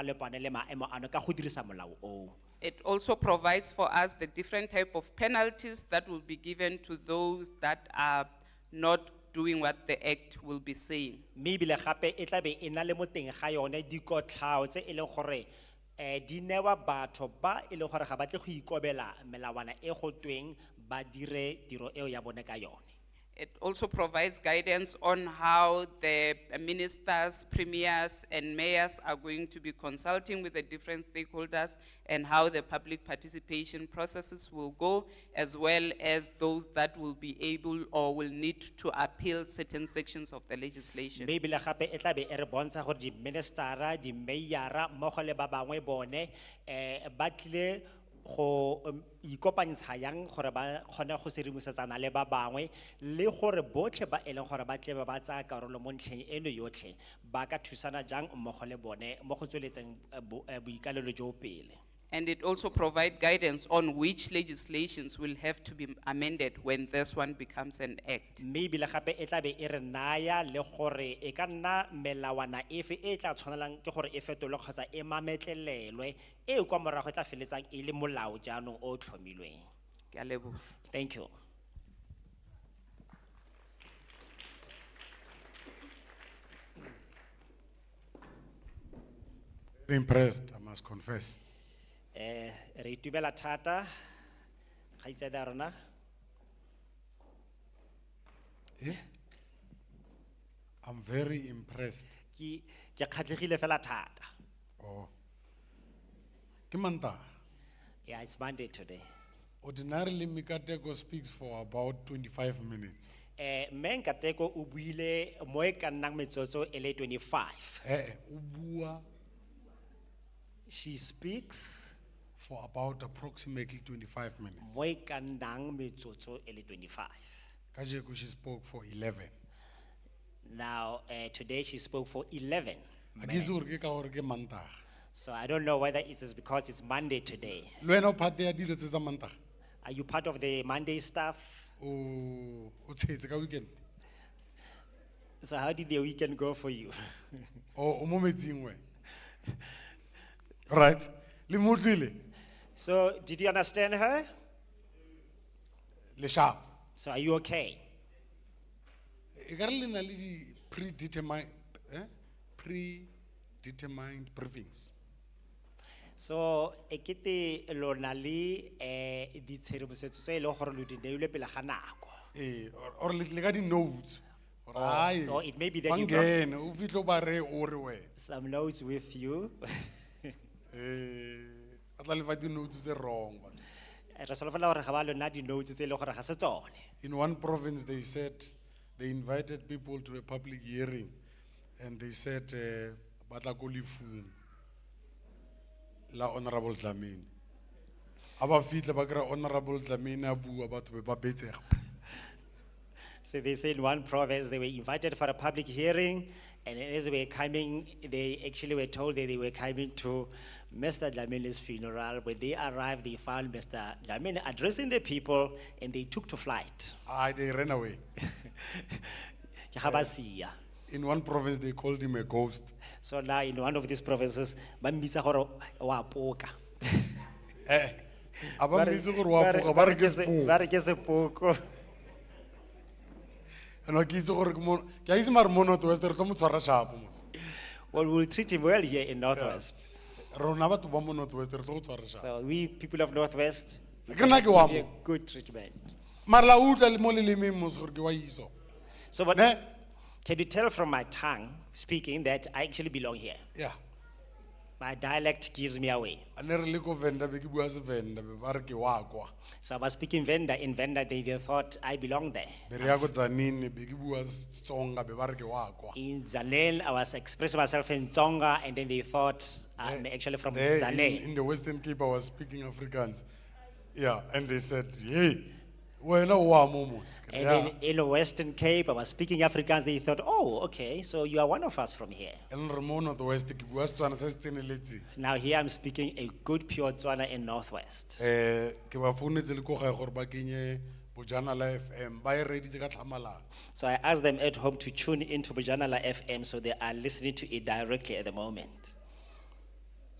palepane le maemo ano ka go dirisa molao oo It also provides for us the different type of penalties that will be given to those that are not doing what the act will be saying. mme ebile gape e tlabe e na le mo teng ga yone dikotlhao tse e leng gore um di newa batho ba e leng gore ga batle go ikobela melawana e go tweng ba dire tiro eo ya bone ka yone It also provides guidance on how the ministers, premiers, and mayors are going to be consulting with the different stakeholders and how the public participation processes will go, as well as those that will be able or will need to appeal certain sections of the legislation. mme ebile gape e tlabe e re bontsha gore di-ministera di-mayora mmogo le ba bangwe bone um ba tlile go um, ikopantsha yang gore ba kgone go sedimosetsana le ba bangwe le gore botlhe ba e leng gore ba tle ba ba tsaya karolo mo ntlheng eno yotlhe ba ka thusana jang mmogo le bone mo go tsweletseng eh, bo- eh, boikalelo jo pele And it also provide guidance on which legislations will have to be amended when this one becomes an act. mme ebile gape e tlabe e re naya le gore e ka nna melawana efe e e tla tshwanelang ke gore e fetolwe kgotsa e mametlelelwe e kwa morago e tla feletsang e le molao jaanong o o tlhomilweng Ke a leboha. thank you Very impressed, I must confess. um re itumela thata ga itsedi ya rona Eh? I'm very impressed. ke ke kgatlhegile fela thata Oh. Ke Mantaha. yeah it's monday today ordinarily Mikateko speaks for about twenty-five minutes. um mme nkateko o buile mo e ka nnang metsotso e le twenty-five Eh, eh, o bua she speaks for about approximately twenty-five minutes. mo e ka nnang metsotso e le twenty-five Kajeko she spoke for eleven. Now, uh, today she spoke for 11. Akizu urke ka hore ke Mantaha. So I don't know whether it is because it's Monday today. Le wena o phate ya dilo tse tsa Mantaha? Are you part of the Monday staff? O, o tshetse ka weekend? So how did the weekend go for you? Oh, O, o mo metsing wena? Right, le mo utlwile? so did you understand her? le sharp. So are you okay? Ekare E le na le di predetermined, eh? Predetermined briefings. So e ekete lonali eh di tshedimosetso tse e leng gore lo di neilwe pele ga nako. Eh, or- or le le ka di notes. Or aye. or it may be that you got- Bangene, o fitlhe o ba reye o re wena. Some notes with you. Eh, ba tla le fa di notes tse wrong. batho. Re solofela gore ga ba lona di notes tse e leng gore ga se tsone. In one province, they said, they invited people to a public hearing and they said, eh, batla ko lefung la Honorable Dlamini. Aba fitlhe ba kry Honorable Dlamini a bua batho be ba betsega. So they say in one province, they were invited for a public hearing, and as they were coming, they actually were told that they were coming to Mr. Dlamini's funeral. When they arrived, they found Mr. Dlamini addressing the people, and they took to flight. Ah, they ran away. Ke ga ba sia. In one province, they called him a ghost. So now in one of these provinces, ba mbitsa gore wa poka. Eh, Ba aba re- mmitse gore wa ba re- poka, ba ba re re ke ke se- ba sepoko. re ke sepoko. And wa ke itse gore ke mo, ke a itse mare mo North West, re tlo mo tshwara shapo mos. Well, we'll treat him well here in Northwest. Rona batho ba mo North West, re tlo go tshwara shapo. So we, people of Northwest, Ke nna ke wa be mo. a good treatment. mara la utlwa le mo lelemeng mose gore ke wa iso So what? ne Can you tell from my tongue speaking that I actually belong here? ya My dialect gives me away. a ne re le ko venda be ke bua sevenda be ba re ke wa kwa So I was speaking Venda in Venda, they, they thought I belong there. be re ya ko tsanini be ke bua setsonga be ba re ke wa kwa In Zanel, I was expressing myself in Tsonga, and then they thought I'm actually from There in- Zanel. Eh, in the western cape i was speaking africans yeah and they said hey wena o wa mo mose Ke re, And "Yeah." then in the Western Cape, I was speaking Afrikaans, they thought, oh, okay, so you are one of us from here. and re mo north west ke bua setswana se se tseneletseng Now here I'm speaking a good pure Tswana in Northwest. um ke ba founetse le ko gae gore ba kenye bojanala f m ba e reditse ka tlhamalana So I asked them at home to tune into Bujanala FM, so they are listening to it directly at the moment.